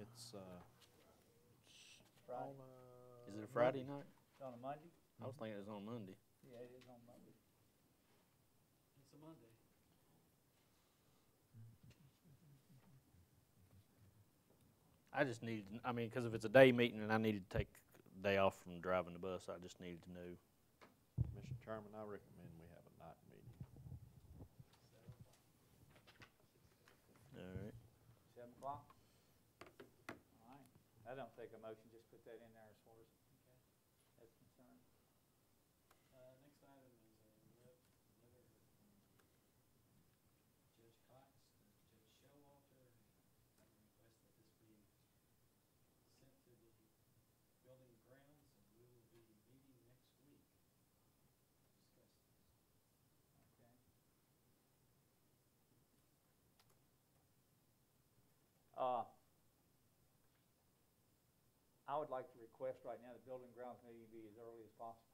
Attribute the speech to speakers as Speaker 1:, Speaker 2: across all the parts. Speaker 1: It's, uh,
Speaker 2: Friday,
Speaker 3: Is it a Friday night?
Speaker 2: It's on a Uh, Monday? Mm-hmm.
Speaker 3: I was thinking it was on Monday.
Speaker 2: Yeah, it is on Monday.
Speaker 4: It's a Monday.
Speaker 3: I just needed, to kn- I mean, because if it's a day meeting and I needed to take a day off from driving the bus, I just needed to know.
Speaker 1: Mr. Chairman, I recommend we have a night meeting.
Speaker 3: All right.
Speaker 2: Seven o'clock? All right. I don't take a motion, just put that in there as far as, okay, that's concerned.
Speaker 4: Uh, next item is a le- letter from Judge Cox to Judge Showalter, and request that this be sent to the building grounds, and we will be meeting next week to discuss
Speaker 2: Okay.
Speaker 4: this.
Speaker 2: Uh, I would like to request right now the building grounds meeting be as early as possible.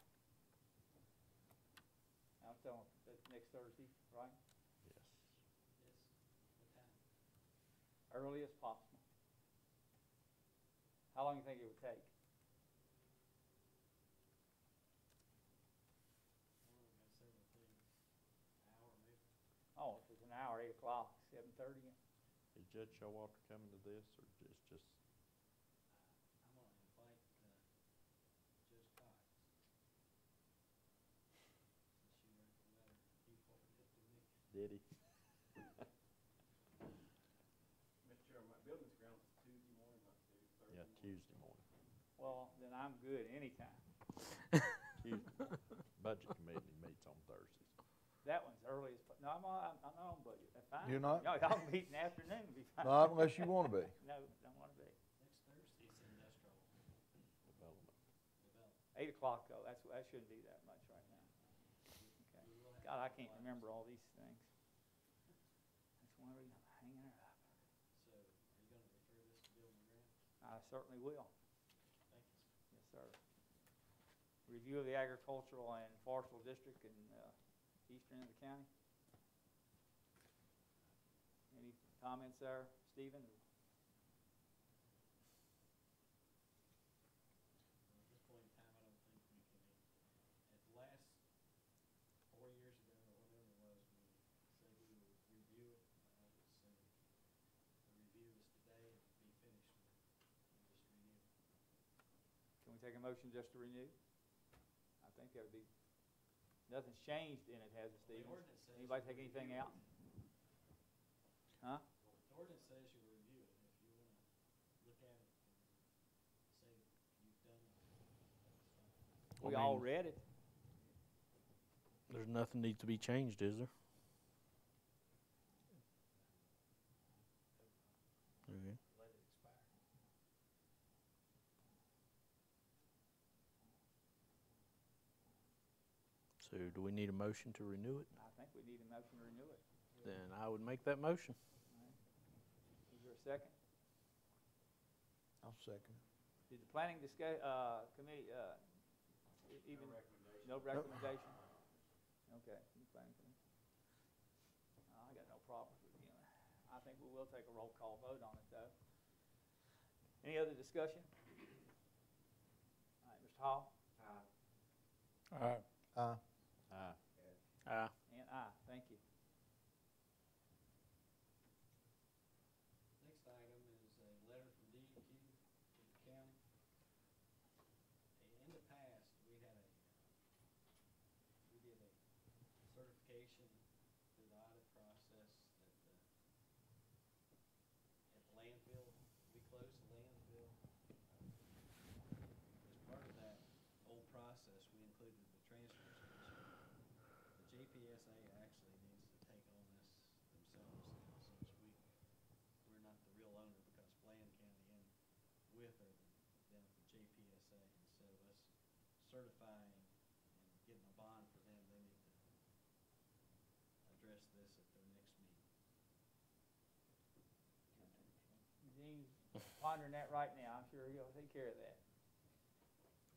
Speaker 2: I'm telling, that's next Thursday, right?
Speaker 1: Yes.
Speaker 4: Yes, what time?
Speaker 2: Early as possible. How long you think it would take?
Speaker 4: Well, we've got several things, an hour maybe.
Speaker 2: Oh, if it's an hour, eight o'clock, seven thirty,
Speaker 1: Is Judge Showalter coming to this, or just, just,
Speaker 4: I'm gonna invite, uh, Judge Cox. Since you wrote the letter, you forwarded it to me.
Speaker 1: did he?
Speaker 5: Mr. Chairman, my building's grounds is Tuesday morning, not Tuesday, Thursday
Speaker 1: Yeah,
Speaker 5: morning.
Speaker 1: Tuesday morning,
Speaker 2: well, then I'm good anytime.
Speaker 1: Tuesday morning. Budget Committee meets on Thursdays.
Speaker 2: That one's early as, po- no, I'm, on- I'm, I'm not on budget, that's fine.
Speaker 6: You're not?
Speaker 2: No, y'all meet in the afternoon, it'll be fine.
Speaker 6: Not unless you want to be.
Speaker 2: No, don't wanna be.
Speaker 4: Next Thursday's industrial
Speaker 1: Development.
Speaker 4: development.
Speaker 2: Eight o'clock though, that's, that shouldn't be that much right now. Okay.
Speaker 4: We will have
Speaker 2: God, I
Speaker 4: to
Speaker 2: can't
Speaker 4: finalize.
Speaker 2: remember all these things. That's one reason I'm hanging her up.
Speaker 4: So, are you gonna refer this to Bill McGrath?
Speaker 2: I certainly will,
Speaker 4: Thank you.
Speaker 2: yes, sir. Review of the agricultural and forestal district in, uh, eastern end of the county. Any comments there, Stephen?
Speaker 4: Well, At this point in time, I don't think we can, at the last four years ago, or whatever it was, we said we would review it. I would say the review is today and be finished with, it. and just renew. it.
Speaker 2: Can we take a motion just to renew? I think that would be, nothing's changed in it, has it,
Speaker 4: The
Speaker 2: Stephen?
Speaker 4: ordinance says
Speaker 2: Anybody
Speaker 4: you
Speaker 2: take anything
Speaker 4: review it.
Speaker 2: out? Huh?
Speaker 4: The ordinance says you review it, if you wanna look at it and say you've done it,
Speaker 2: We
Speaker 3: I
Speaker 4: that's fine.
Speaker 2: all
Speaker 3: mean-
Speaker 2: read it.
Speaker 3: There's nothing needs to be changed, is there? Okay.
Speaker 4: let it expire.
Speaker 3: So do we need a motion to renew it?
Speaker 2: I think we need a motion to renew it.
Speaker 3: Then I would make that motion.
Speaker 2: Is there a second?
Speaker 6: I'll second.
Speaker 2: Did the planning discuss, uh, committee, uh, e- even, no recommendation? Okay, the planning committee. I got no problems with you. I think we will take a roll call vote on it, though. Any other discussion? All right, Mr. Hall?
Speaker 6: Aye.
Speaker 1: Aye.
Speaker 3: Aye.
Speaker 2: And aye, thank you.
Speaker 4: Next item is a letter from DEQ to the county. In the past, we had a, uh, we did a certification through the audit process that the, at the landfill, we closed the landfill. As part of that old process, we included the transfer station. The JPSA actually needs to take on this themselves now, since we we're not the real owner because Bland County and with are down at the JPSA. And so us certifying and getting a bond for them, they need to address this at their next meeting.
Speaker 2: Dean's pondering that right now. I'm sure he'll take care of that.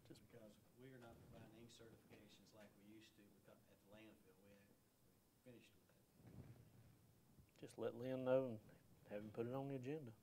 Speaker 4: Just because we are not providing any certifications like we used to because at the landfill, we had, we finished with that.
Speaker 3: Just let Lynn know and have him put it on the agenda.